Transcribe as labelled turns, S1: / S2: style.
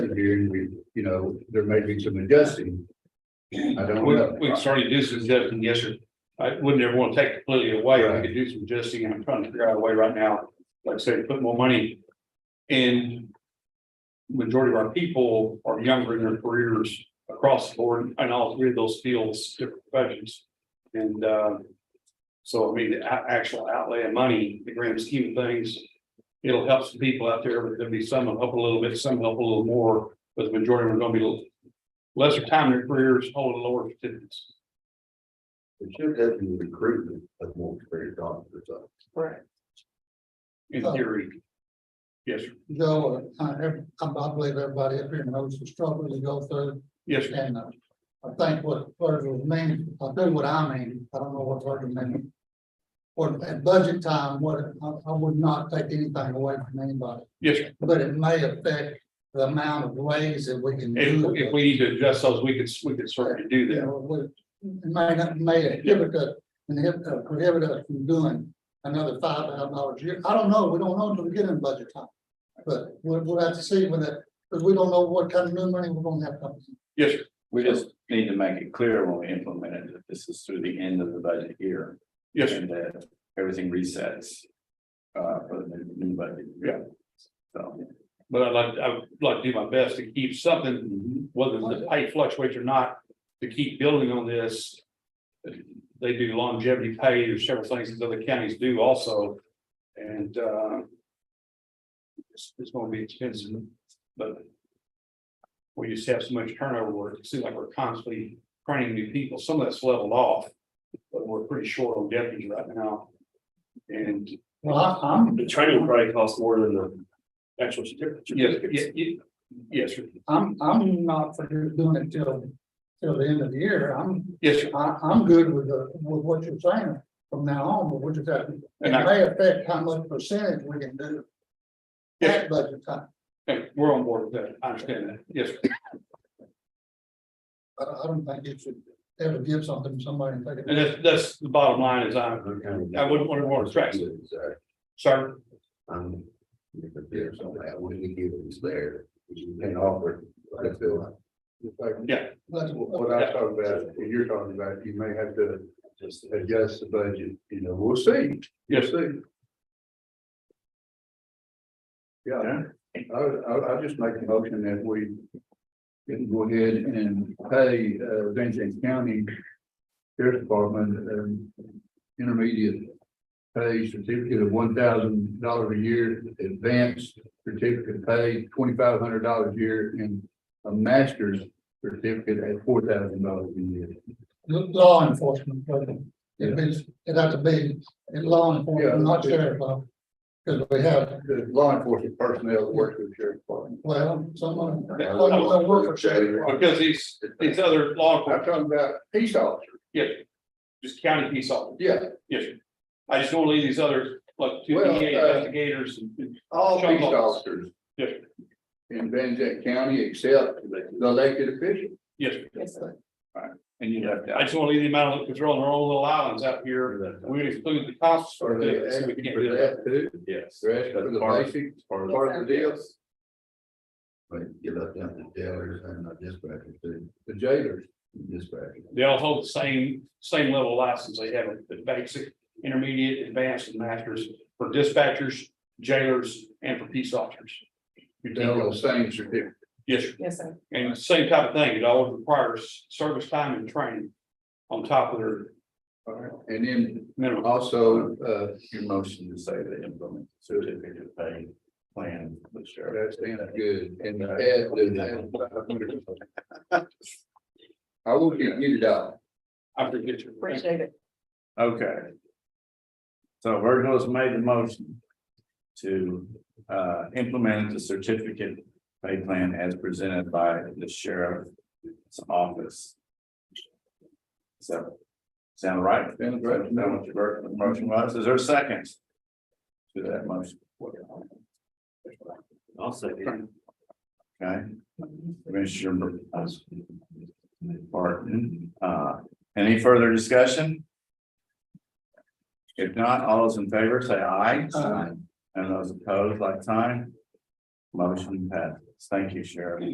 S1: here and we, you know, there may be some adjusting. I don't
S2: We,
S1: know.
S2: we can certainly do some adjusting, yes, sir. I wouldn't ever want to take completely away. I
S1: Right.
S2: could do some adjusting and I'm trying to figure out a way right now, like I said, put more money. And majority of our people are younger in their careers across the board and all three of those fields, different professions. And, uh, so I mean, the a- actual outlay of money, the grand scheme of things, it'll help some people out there, but there'll be some that'll help a little bit, some help a little more, but the majority are gonna be lesser time in their careers, holding lower certificates.
S1: It should have been recruitment of more experienced officers. so.
S3: Correct.
S2: In
S3: Oh.
S2: theory. Yes, sir.
S3: Joe, uh, I, I believe everybody up here knows the struggle you go through
S2: yes, sir.
S3: and uh, I think what Virgil means, I'll do what I mean. I don't know what Virgil means. Or at budget time, what, I, I would not take anything away from anybody,
S2: yes. sir.
S3: but it may affect the amount of ways that we can.
S2: If,
S3: do it.
S2: if we need to adjust those, we could, we could certainly do
S3: You
S2: that.
S3: know, would, it may not, may inhibit us, inhibit, uh, prohibit us from doing another five thousand dollars a year. I don't know, we don't know until we get in budget time. But we'll, we'll have to see when that, because we don't know what kind of new money we're gonna have coming.
S2: Yes, sir.
S4: We just need to make it clear when we implement it, that this is through the end of the budget year.
S2: yes, sir.
S4: And that everything resets. Uh, for the new- new budget.
S2: Yeah.
S4: So.
S2: but I'd like, I would like to do my best to keep something, whether the pay fluctuates or not, to keep building on this. They do longevity pay, there's several things that other counties do also, and, uh. It's, it's gonna be expensive, but. We just have so much turnover work, it seems like we're constantly training new people, some of that's leveled off, but we're pretty short on deputies right now. And
S3: Well, I, I'm,
S5: The training probably costs more than the actual certificate.
S2: Yes, yes, yes, yes, sir.
S3: I'm, I'm not for doing it till, till the end of the year. I'm,
S2: yes, sir.
S3: I, I'm good with the, with what you're saying from now on, but we're just having, it
S2: And I-
S3: may affect how much percentage we can do.
S2: Yes.
S3: At budget time.
S2: Hey, we're on board with that, I understand that, yes, sir.
S3: I, I don't think you should ever give something to somebody and take
S2: and
S3: it.
S2: that's, that's the bottom line is I, I wouldn't want to more stress,
S1: Sorry,
S2: sir,
S1: uh, I'm, if there's something I wouldn't give it, it's there, you can offer, it, I feel. It's like
S3: That's
S1: What what I talk about, what you're talking about, you may have to just adjust the budget, you know, we'll see.
S2: yes, sir.
S1: See. Yeah, I, I, I just make a motion that we can go ahead and pay, uh, Vincent County Sheriff's Department, um, intermediate pay certificate of one thousand dollars a year, advanced certificate pay twenty-five hundred dollars a year, and a master's certificate at four thousand dollars a year.
S3: Law enforcement, but it means, it has to be in law
S1: Yeah.
S3: enforcement, not sheriff. Because we have,
S1: The law enforcement personnel that works with sheriff's department.
S3: well, someone.
S2: Yeah.
S3: someone work for sheriff.
S2: Because these, these other law,
S1: I'm
S2: enforcement,
S1: talking about peace officers,
S2: yes, sir. just county peace officers,
S1: yeah,
S2: yes, sir. I just don't leave these other, like, two
S1: Well,
S2: DEA
S1: uh,
S2: investigators and,
S1: all
S2: Sean
S1: peace
S2: Lopez.
S1: officers.
S2: Yes.
S1: In Van Zandt County except the elected officials.
S2: yes, sir.
S4: And you left
S2: I
S4: out.
S2: just want to leave them out, because they're on their own little islands out here, we would exclude the cops.
S1: Are
S2: for
S1: they
S2: this, so we
S1: asking
S2: can't
S1: for
S2: do that.
S1: that too?
S4: Yes.
S1: Rest for
S4: That's
S1: the
S4: part-
S1: basic,
S4: part of-
S1: part of the deal? But you left out the jailers and the dispatchers too. The jailers, dispatchers.
S2: They all hold the same, same level of license. They have the basic, intermediate, advanced, and masters for dispatchers, jailers, and for peace officers. You
S1: They all
S2: tell
S1: have the
S2: us,
S1: same certificate.
S2: yes, sir.
S6: Yes, sir.
S2: and same type of thing. It all requires service time and training on top of their
S1: And then
S2: minimum.
S1: also, uh, your motion,
S4: Motion to say the implement certificate pay plan. for the sheriff.
S1: That sounds good, and add the. I will get muted out.
S2: I forget your.
S6: Appreciate it.
S4: Okay. So Virgil has made the motion to uh implement the certificate pay plan as presented by the sheriff's office. So, sound right?
S1: Sounds right.
S4: Is That what your ver- motion was, is there a second? To that motion?
S5: I'll say.
S4: Okay. Commissioner Barton, uh, any further discussion? If not, all those in favor say aye.
S3: Aye.
S4: And those opposed, like sign. Motion passes. Thank you, Sheriff.